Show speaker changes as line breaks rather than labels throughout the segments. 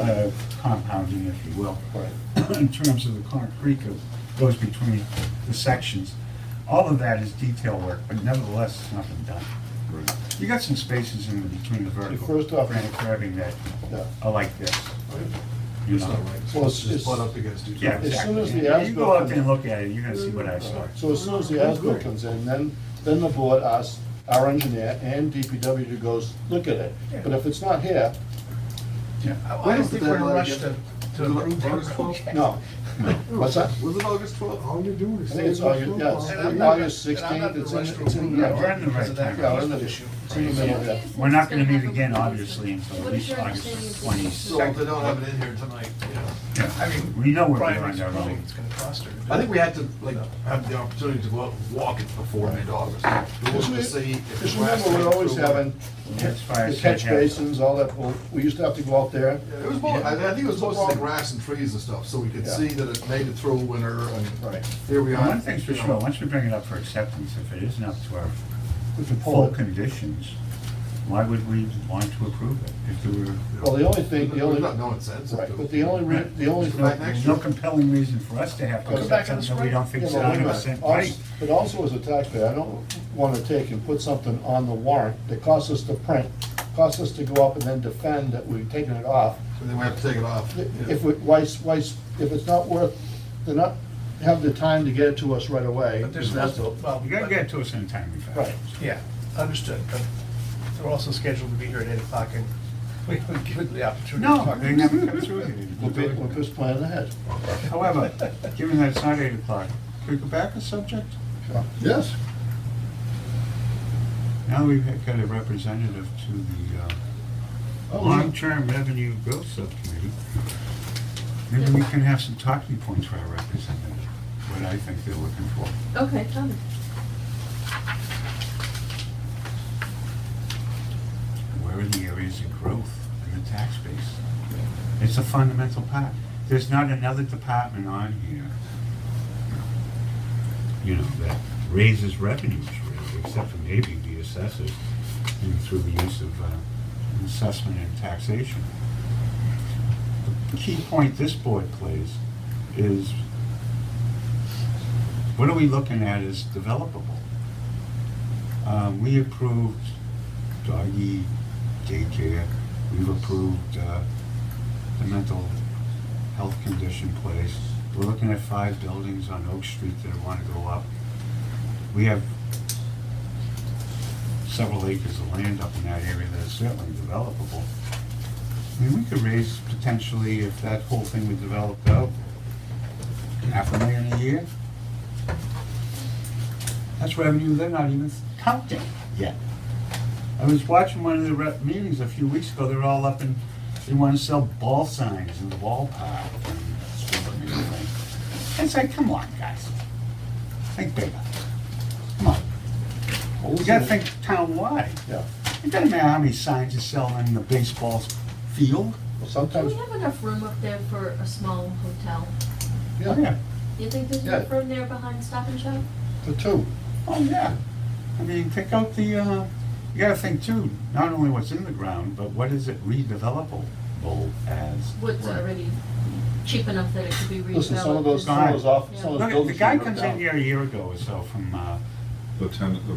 uh, compounding, if you will.
Right.
In terms of the concrete that goes between the sections, all of that is detail work, but nevertheless, it's not been done.
Right.
You got some spaces in between the vertical.
First off-
Granite curving that
Yeah.
are like this, you
It's not
know?
right.
Well,
It's
it's-
just butt up against each
Yeah,
other.
As soon
exactly.
as the
You go out
as-built
there and look at it, you're gonna see what I saw.
So as soon as the ASBIL comes in, then, then the board asks our engineer and DPW to go s- look at it. But if it's not here,
Yeah.
I don't think we're in a rush to, to approve that
August twelfth?
project.
no. What's that?
Was it August twelfth? All you're doing is.
I think it's
saying
August- yeah, it's-
And I'm
twelfth.
not-
August
and I'm not in a
16th,
rush
it's
to
in- it's in-
approve
yeah,
that
we're in the
because
right
of that
time. Yeah,
we're in the-
issue.
it's in the middle there.
We're not gonna meet again, obviously, until at least August 20th.
So if they don't have it in here tonight, you know.
I mean,
We know we're
Brian
on
makes a
our
point,
own.
it's gonna cost her. to do
I
it.
think we had to, like, have the opportunity to go out and walk it before mid-August. We
Because
wanted
we-
to see if.
because
the last
remember, we're
time
always
through-
having
That's why I
the
said
catch
have it.
basins, all that, well, we used to have to go out there.
It was, more- I I think it was mostly the grass and trees and stuff, so we could
Yeah.
see that it made it through winter and
Right.
here we are.
Now, One thing's for
you know.
sure, once we bring it up for acceptance, if it isn't up to our
We can pull
full
it.
conditions, why would we want to approve it if there were?
Well, the only thing, the
There's
only,
not
right,
no incentive. to-
but the only, re- the only.
Just
thing-
back next
There's no compelling reason for us to have to
Go
accept
back in the
something that we don't think
Yeah,
is
but wait a
hundred
minute.
percent
Also-
right.
But also as a taxpayer, I don't want to take and put something on the warrant that costs us to print, costs us to go up and then defend that we've taken it off.
And then we have to take it off. Yeah.
If we, why, s- why, s- if it's not worth, they're not, have the time to get it to us right away.
But there's
that's
also, well,
You gotta get it to us in a timely fashion.
Right.
yeah, understood, but they're also scheduled to be here at eight o'clock and we haven't given the opportunity. to
No,
talk.
they never come through
We're be- we're
it.
just planning ahead.
However, given that it's not eight o'clock, could we go back a subject?
Yes.
Now we've got a representative to the uh,
Oh,
Long-Term Revenue Growth Subcommittee. Maybe we can have some talking points for our representative, what I think they're looking for.
Okay, tell me.
Where are the areas of growth in the tax base? It's a fundamental part. There's not another department on here, you know, that raises revenues, really, except for maybe the assessors, you know, through the use of uh, assessment and taxation. The key point this board plays is, what are we looking at as developable? Uh, We approved uh, doggy daycare, we've approved uh, the mental health condition place. We're looking at five buildings on Oak Street that want to go up. We have several acres of land up in that area that is certainly developable. I mean, we could raise potentially, if that whole thing were developed out, half a million a year. That's revenue they're not even counting yet. I was watching one of the rep meetings a few weeks ago, they're all up and, they wanna sell ball signs in the ballpark. and stuff and everything. It's like, come on, guys, think bigger, come on. We gotta think town-wide.
Yeah,
It doesn't matter how many signs you sell in the baseball field.
well,
Do
sometimes,
we have enough room up there for a small hotel?
Oh,
yeah,
yeah,
Do you think there's
Yeah.
enough room there behind Stop and Shop?
for two.
oh, yeah. I mean, pick out the, uh, you gotta think too, not only what's in the ground, but what is it redevelopable as?
Wood's already cheap enough that it could be redeveloped.
Listen, some of those,
as-
some of those off, some of
Look,
those
the
buildings.
guy
were
comes
down.
in here a year ago or so from, uh,
The tennis, the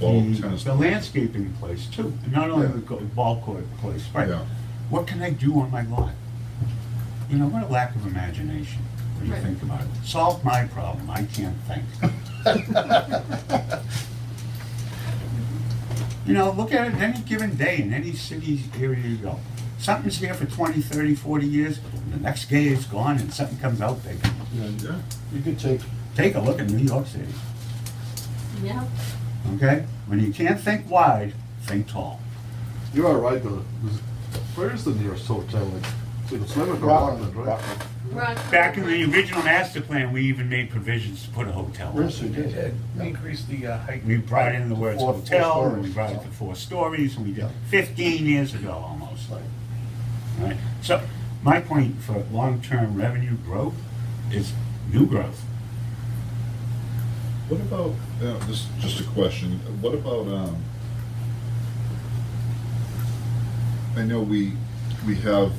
ball
the
Mm.
tennis.
the landscaping place too, and not only the go- ball court place, right?
Yeah.
What can I do on my lot? You know, what a lack of imagination, when you
Right.
think about it. Solve my problem, I can't think. You know, look at it any given day in any city area you go. Something's here for 20, 30, 40 years, and the next day it's gone and something comes out big.
And
Yeah,
You could take,
Take a look at New York City.
Yeah,
Okay? When you can't think wide, think tall.
You are right, though. Where is the nearest hotel? Like, to the Slimming
Rockland,
Rockland, right?
Rock-
Back in the original master plan, we even made provisions to put a hotel.
yes, you did.
Yeah, We increased the uh, height.
We brought in the words
Four- four
hotel, and we
stories.
brought it to four stories, and we did fifteen years ago almost.
Right.
Right? So, my point for long-term revenue growth is new growth.
what about, uh, this, is just a question, what about, um, I know we, we have